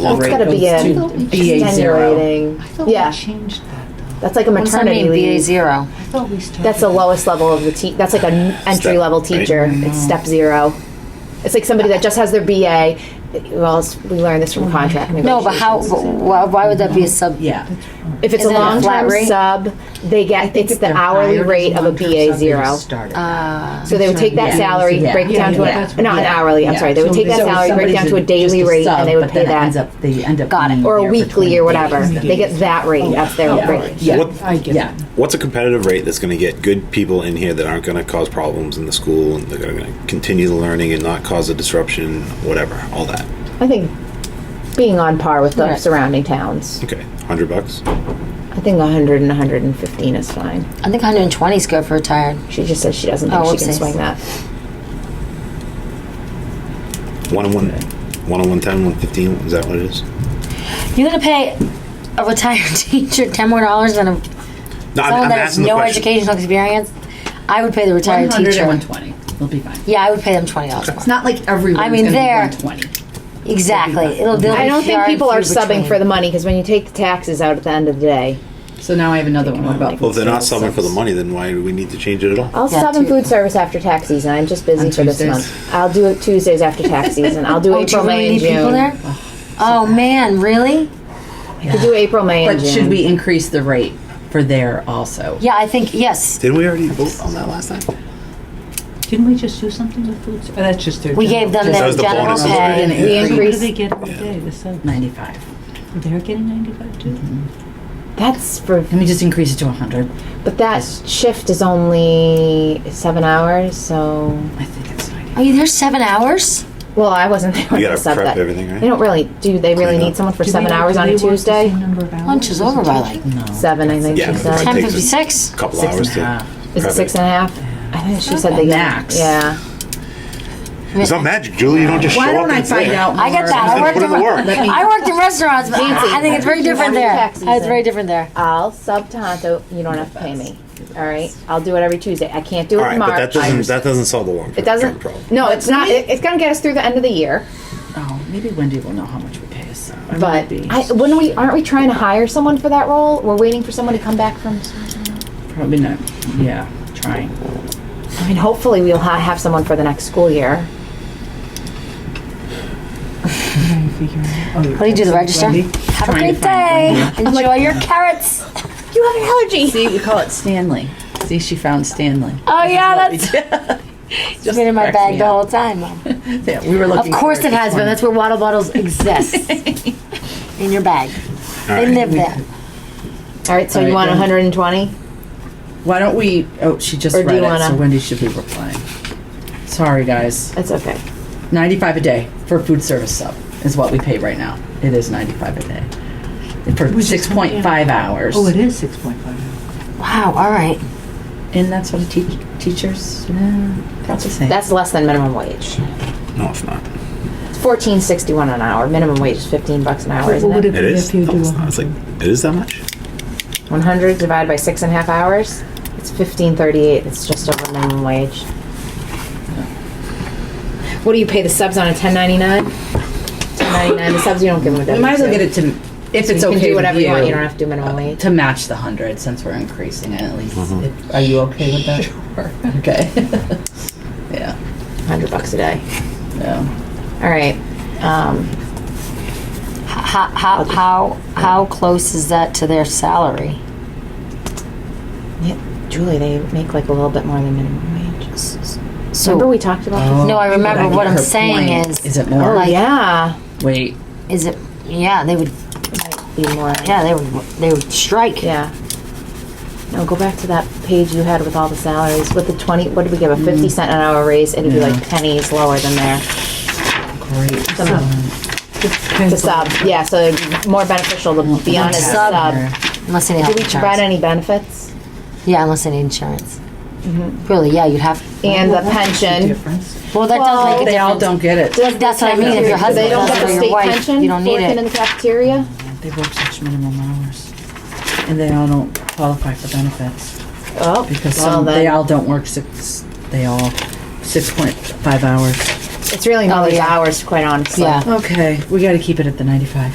Well, it's rate gotta be goes in- to BA zero. Extenuating. I thought Yeah, we changed that though. that's like a What's that maternity mean, BA leave. zero? I thought we started. That's the lowest level of the te, that's like an entry level Step, right? teacher. It's step zero. It's like somebody that just has their BA. Well, it's- we learned this from contract No, but negotiations. how, why, why would that be a sub? Yeah. If it's a Isn't it a flat long-term rate? sub, they I get, think it's if the they're hourly hired as rate of a long-term BA sub, they zero. just started. Uh, So they would take that Yeah. salary, Yeah. break it down Yeah, to yeah, that's a, what- not an yeah. hourly, I'm Yeah. sorry, they would So- take that so salary, break it somebody's down to a just daily rate sub, and they would but pay then it ends that. up- They end up. Got it. being Or a there for weekly 20 or whatever. days. They get that rate, that's their Yeah. rate. Yeah. What- I get Yeah. it. What's a competitive rate that's going to get good people in here that aren't going to cause problems in the school and they're going to continue the learning and not cause a disruption, whatever, all that. I think being on par with the Right. surrounding towns, Okay, hundred bucks. I think hundred and hundred and fifteen is fine. I think hundred and twenty is good for retired. She just says she doesn't Oh, think she can whoopsies. swing that. One on one, one on one ten, one fifteen. Is that what it is? You're gonna pay a retired teacher ten more dollars than a, No, I'm, someone I'm that has asking the no question. educational experience? I would pay the retired 100 teacher. and 120. It'll be fine. Yeah, I would pay them twenty dollars. It's not like everyone's I mean, gonna be there- 120. Exactly. It'll. they'll I be don't think far and people are few subbing between. for the money, because when you take the taxes out at the end of the day, So now I have another one. What about Well, if they're not food subbing for the service? money, then why do we need to change it at all? I'll Yeah, sub in Tu- food service after tax season, I'm just busy On for this Tuesdays. month. I'll do it Tuesdays after tax season, I'll do Oh, do you April, really May and need people June. there? Oh man, really? I could do April, May and But June. should we increase the rate for there also? Yeah, I think yes. Didn't we already vote on that last time? Didn't we just do something with food? ser- Oh, that's just their. We general- gave them That their was the general bonuses, pay. right? And We increase What do increase, they get every day? The sub. 95. They're getting ninety-five too. that's for, Let me just increase it to 100. but that shift is only seven hours, so, I think it's 90. Are you there seven hours? well, I wasn't there when You I gotta subbed prep that. everything, right? They don't really, do they really Clean up. need someone for Do seven they- hours do on they a work the Tuesday? same number of hours Lunch as is a over by teacher? like No. Seven, I think Yeah, she but it said. ten takes a fifty-six. Couple Six and hours a to. half. Is it prep six and a half? I think she said they get. Max. Yeah. It's not magic, Julie. You don't just Why show up don't and I it's find there. out? I get more? that. I Then worked put in, in the work. Let me- I worked in restaurants, but I I think it's very different there. Tax season. It's very different there. I'll sub Tonto. You don't have to pay me. All right. I'll do it every Tuesday. I can't do it All in right, March. but that doesn't that doesn't solve the long it doesn't. problem. No, it's not. It, it's gonna get us through the end of the year. Oh, maybe Wendy will know how much we pay us. I might But be. I, when we aren't we trying to hire someone for that role? We're waiting for someone to come back from. Probably not. Yeah, trying. I mean, hopefully we'll ha- have someone for the next school year. What do you do? The register. Have a Trying to great find day. Enjoy your carrots. You have an allergy. See, we call it Stanley. See, she found Stanley. Oh yeah, that's Just been in my cracks bag me the up. whole time. Mom. Yeah, we were Of looking. course for it has been. before. That's where water bottles exist. in your bag. They live there. All right. So All you right, want then. 120? Why don't we? Oh, she just Or do read it, you wanna- so Wendy should be replying. Sorry, guys. That's okay. Ninety-five a day for food service sub is what we pay right now. It is ninety-five a day for Which is- six point five hours. Oh, it is six point five. Wow. All right. and that's what a teach teachers. Uh, that's the same. That's less than minimum wage. No, it's not. It's 14.61 an hour. Minimum wage is 15 bucks an hour, What isn't would it it? be It is. if you No, do it's a not. It's hundred? like it is that much. 100 divided by six and a half hours. It's 15.38. It's just over minimum wage. What do you pay the subs on a 10.99? 10.99. The subs you don't give them. a we might as well W2. get it to if it's you okay Can do whatever with Uh, you want. You don't have to do minimum wage. to match the hundred since we're increasing it at least. If- Are you okay with that? Sure. Okay. yeah. 100 bucks a day. Yeah. All right. Um, How how how how close is that to their salary? yeah, Julie, they make like a little bit more than minimum wage. So Remember we talked about this? No, I but remember what get I'm her saying point. is- Is it more? Oh, like- yeah. Wait. is it? Yeah, they would. Might be more. Yeah, they would. They would strike. Yeah. No, go back to that page you had with all the salaries, with the twenty, what did we give, a Mm. fifty cent an hour raise, it'd be like pennies lower than there. Great. Some- The sub, yeah, so it'd be more beneficial to be on a Sub. sub. Unless they need Did we provide insurance. any benefits? Yeah, unless they need insurance. Really? Yeah, you'd have. And the The pension, difference. Well, that Well, does make a They all don't difference. get it. does That's what I mean, if your they husband don't does get it or a your state wife, pension you don't for need working it. in the cafeteria? They work such minimum hours, and they all don't qualify for benefits Oh, because well some they then, all don't work six. They all six point five hours. it's really not Oh, the yeah. hours, quite honestly. Yeah. Okay, we got to keep it at the ninety-five.